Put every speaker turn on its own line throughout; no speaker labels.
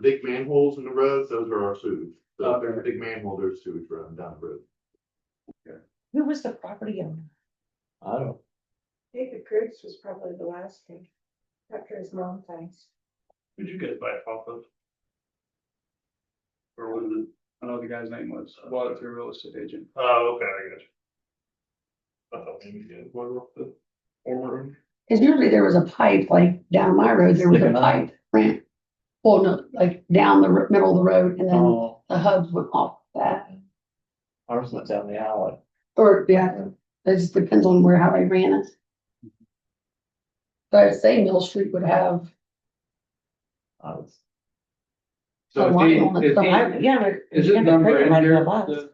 the big manholes in the roads, those are our sewage. So if there's a
Okay.
big manhole, there's sewage running down the road.
Who was the property owner?
I don't,
David Cruz was probably the last thing, after his mom died.
Did you guys buy it off of? Or was it?
I know the guy's name was, bought it through a real estate agent.
Oh, okay, I got you. I thought maybe you had one off the former. owner.
Cause usually there was a pipe, like down my road, there was a
Sticking up.
pipe ran. Well, no, like down the r- middle of the road and then
oh,
the hubs went off that,
ours went down the alley.
or yeah, it just depends on where, how they ran it. But I'd say Mill Street would have
I was,
a
So is
line on
he,
it.
is
So I,
he,
yeah. but
is
you
his
can't pay
number in
money
here?
to lots.
The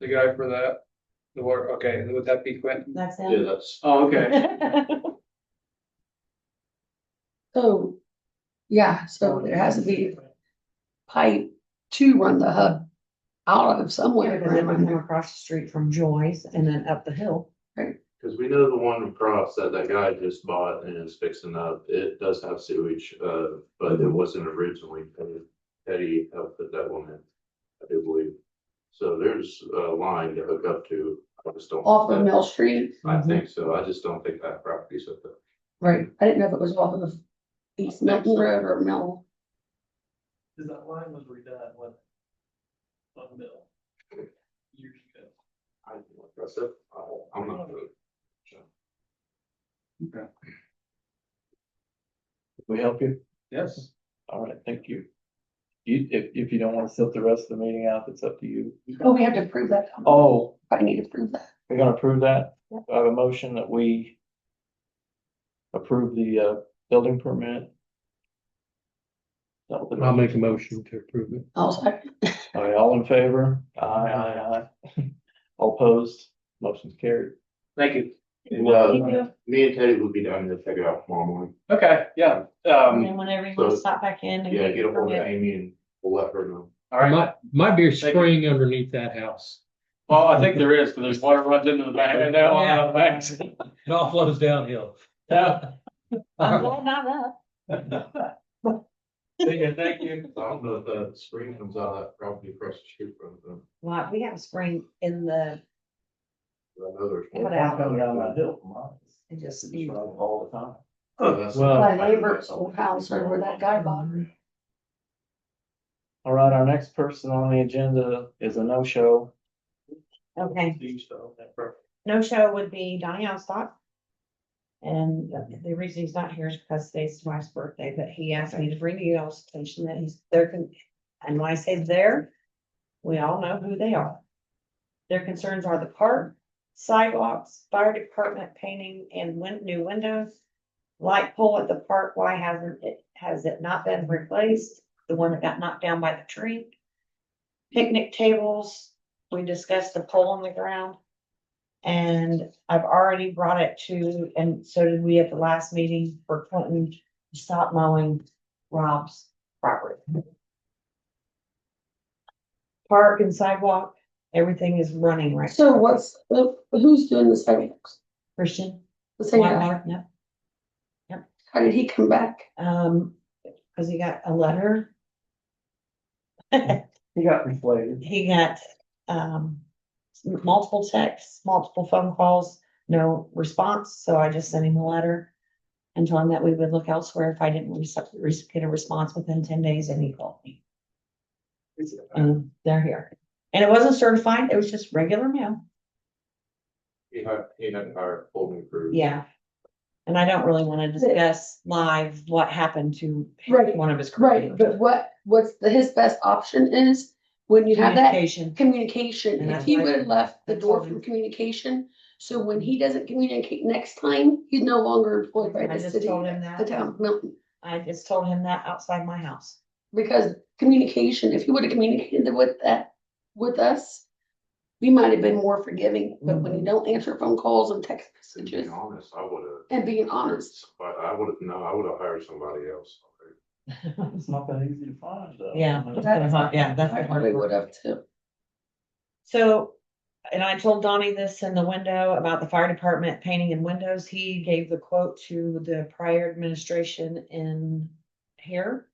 the guy for that, the work, okay, would that be Quentin?
That's
Yeah,
him.
that's.
Oh, okay.
So, yeah, so there has to be a pipe to run the hub out
Yeah,
of somewhere.
because it would come across the street from Joyce and then up the hill.
Cause we know the one across that that guy just bought and is fixing up, it does have sewage, uh, but it wasn't originally paved. Eddie helped put that one in, I do believe. So there's a line to hook up to, I just don't.
Off of Mill Street,
I think so, I just don't think that property's up there.
right, I didn't know if it was off of East Milton Road or Mill.
Cause that line was redone when. On Mill. Years ago.
I, like I said, I- I'm not. really sure.
we help you?
Yes.
All right, thank you. You, if, if you don't wanna sit the rest of the meeting out, it's up to you.
Oh, we have to prove that.
Oh,
I need to prove that.
we're gonna approve that?
Yeah.
I have a motion that we approve the, uh, building permit. That was the-
I'll make a motion to approve it.
I was like,
All right, all in favor? Aye, aye, aye. All opposed? Motion's carried.
Thank you.
Mm-hmm.
Well, me and Teddy will be down there to check it out tomorrow morning.
Okay, yeah,
And
um,
then whenever you want
so-
to stop back in and.
Yeah, get a hold of
permit.
Amy and we'll let her know.
all right,
My, my beer's
Thank you.
spraying underneath that house.
well, I think there is, because there's water runs into the back, and now,
Yeah.
uh, backs.
It all flows downhill.
Yeah.
I'm glad "Oh, not up.
Yeah, Thank you.
I don't know if the spring comes out of that property across the street from them,
Well, we have a spring in the,
but I know there's. one.
What happened?
Coming down that hill from mine.
it just.
It's running All the time.
Oh, that's-
Well-
my neighbor's old house or where that guy bought it.
All right, our next person on the agenda is a no-show.
Okay,
Please, though, that perfect.
no show would be Donnie Alstott. And the reason he's not here is because today's his wife's birthday, but he asked me to bring you all attention that he's there. con- And when I say there, we all know who they are. Their concerns are the park, sidewalks, fire department painting and win- new windows. Light pole at the park, why hasn't it, has it not been replaced? The one that got knocked down by the tree. Picnic tables, we discussed the pole on the ground. And I've already brought it to, and so did we at the last meeting for Clinton to stop mowing Rob's property. Park and sidewalk, everything is running right.
So
now.
what's, who's doing the sidewalks?
Christian?
The same guy.
Whitewater, Yep,
How did he come back?
um, cause he got a letter,
He got inflated.
he got, um. Multiple texts, multiple phone calls, no response, so I just sent him a letter. And told him that we would look elsewhere if I didn't receive, get a response within ten days and he called me. And they're here, and it wasn't certified, it was just regular mail.
He had, he had hired full new crew.
Yeah. And I don't really wanna discuss live what happened to
Right,
one of his.
Right, but what, what's the, his best option is when you have that
Communication,
communication. If he would have left the door
Absolutely.
from communication, so when he doesn't communicate next time, he's no longer employed by
I
the
just
city,
told him that.
the town of Milton.
I just told him that outside my house.
Because communication, if he would have communicated with that, with us, we might have been more forgiving, but when you don't answer phone calls and text
To be
messages
honest, I would have,
and being honest.
but I would have, no, I would have hired somebody else.
It's not that easy to find though.
Yeah. Yeah, that's
I
the
probably
hard
would have
part.
too.
So, and I told Donnie this in the window about the fire department painting and windows. He gave the quote to the prior administration in here.